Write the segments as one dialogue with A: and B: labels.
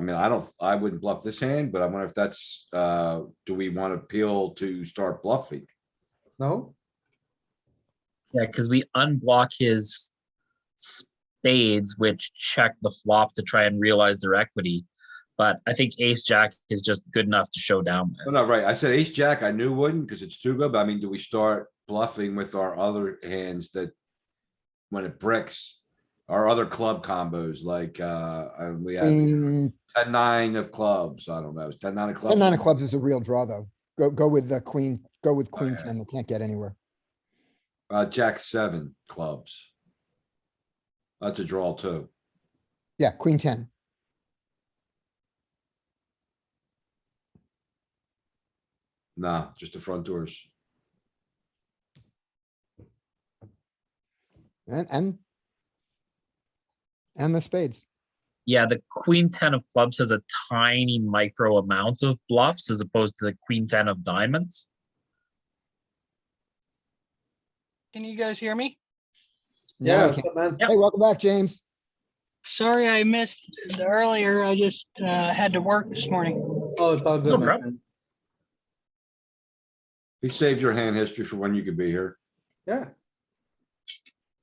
A: mean, I don't, I wouldn't bluff this hand, but I wonder if that's, uh, do we want to peel to start bluffing?
B: No?
C: Yeah, because we unblock his spades, which check the flop to try and realize their equity. But I think ace jack is just good enough to show down
A: No,
C: with.
A: no, right. I said ace jack. I knew wouldn't because it's too good, but I mean, do we start bluffing with our other hands that? When it bricks, our other club combos, like, uh, uh, we have
B: Mm. Queen,
A: ten, nine of clubs. I don't know. It's ten, nine of clubs.
B: ten nine of clubs is a real draw, though. Go, go with the queen, go with queen
A: Okay.
B: ten, they can't get anywhere.
A: Uh, jack seven clubs. That's a draw too.
B: Yeah, queen ten.
A: Nah, just the front doors.
B: And, and. And the spades.
C: Yeah, the queen ten of clubs has a tiny micro amount of bluffs as opposed to the queen ten of diamonds.
D: Can you guys hear me?
B: No, I
E: Yeah,
B: can't-
E: what's up, man?
C: Yep.
B: Hey, welcome back, James.
D: Sorry I missed the earlier. I just uh, had to work this morning.
E: Oh, it's all
C: No
E: good, my
C: problem.
E: friend.
A: He saved your hand history for when you could be here.
E: Yeah,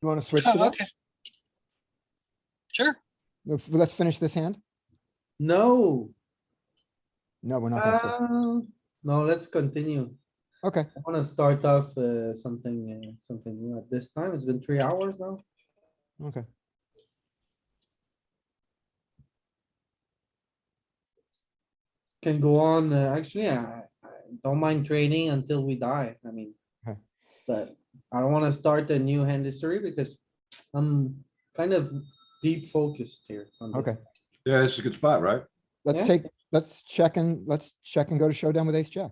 B: You wanna switch to
D: Oh,
B: that?
D: okay. Sure.
B: Let's- Let's finish this hand?
E: no,
B: No, we're not gonna switch.
E: uh, no, let's continue.
B: Okay,
E: I wanna start off, uh, something, uh, something new at this time. It's been three hours now.
B: okay.
E: Can go on, uh, actually, I, I don't mind trading until we die, I mean.
B: Okay.
E: But I don't wanna start a new hand history because I'm kind of deep focused here. on this.
B: Okay.
A: Yeah, it's a good spot, right?
B: Let's
E: Yeah.
B: take, let's check and, let's check and go to showdown with ace jack.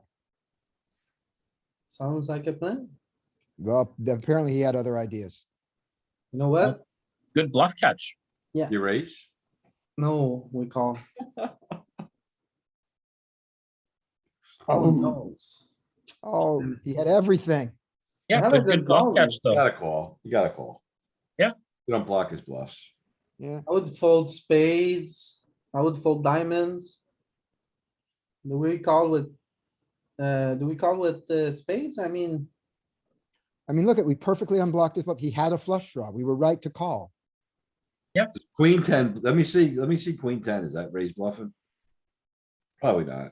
E: Sounds like a plan.
B: Well, apparently he had other ideas.
E: You know what?
C: Good bluff catch.
A: You raise.
E: No, we call.
B: Oh.
E: knows?
B: Oh,
E: Mm.
B: he had everything.
C: Yeah,
E: Not a
C: good,
E: good
C: good bluff
E: call,
C: catch
A: You
C: though.
A: gotta call. You gotta call.
C: Yeah.
A: You don't block his bluffs.
B: Yeah,
E: I would fold spades, I would fold diamonds. Do we call with, uh, do we call with the spades? I mean,
B: I mean, look at, we perfectly unblocked it, but he had a flush draw. We were right to call.
A: Queen ten, let me see, let me see queen ten. Is that raised bluffing? Probably not.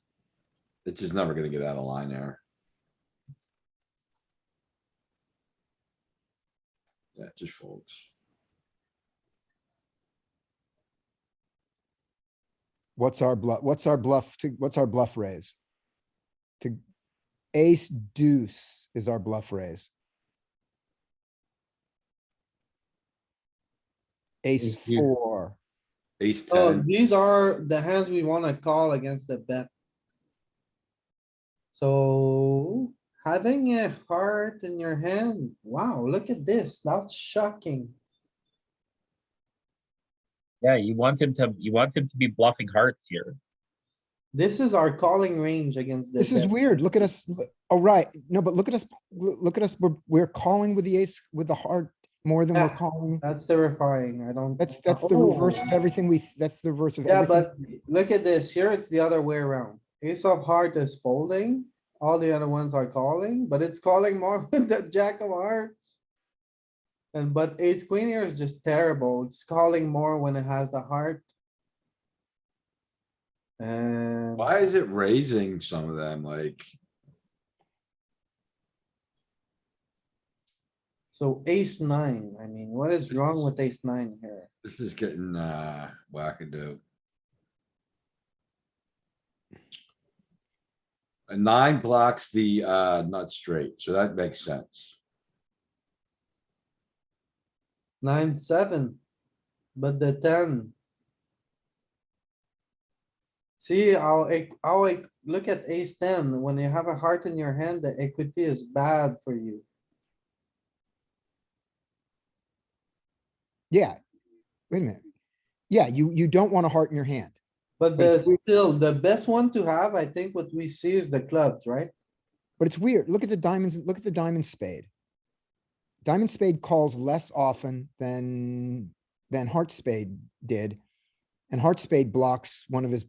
A: It's just never gonna get out of line there. Yeah, it just folds.
B: What's our bluff, what's our bluff to, what's our bluff raise? To ace deuce is our bluff raise. Ace
A: Ace deuce.
B: four,
A: Ace
E: oh,
A: ten,
E: these are the hands we wanna call against the bet. So having a heart in your hand, wow, look at this, that's shocking.
C: Yeah, you want him to, you want him to be bluffing hearts here.
E: This is our calling range against the
B: this is
E: bet.
B: weird. Look at us, Look- oh, right, no, but look at us, loo- look at us, we're, we're calling with the ace, with the heart more than we're
E: Yeah.
B: calling.
E: That's terrifying, I don't. Oh.
B: That's, that's the reverse of everything we, that's the reverse of
E: Yeah,
B: everything.
E: but look at this, here it's the other way around. Ace of heart is folding, all the other ones are calling, but it's calling more with the jack of hearts. And but ace queen here is just terrible, it's calling more when it has the heart. And
A: why is it raising some of them like?
E: so ace nine, I mean, what is wrong with ace nine here?
A: This is getting, uh, wackadoo. A nine blocks the, uh, nut straight, so that makes sense.
E: Nine, seven, but the ten. See how, e- how, e- look at ace ten, when you have a heart in your hand, the equity is bad for you.
B: Yeah. Wait a minute. Yeah, you, you don't want a heart in your hand.
E: But
B: Wait,
E: the, still, the best one to have, I think what we see is the clubs, right?
B: But it's weird. Look at the diamonds, look at the diamond spade. Diamond spade calls less often than, than heart spade did. And heart spade blocks one of his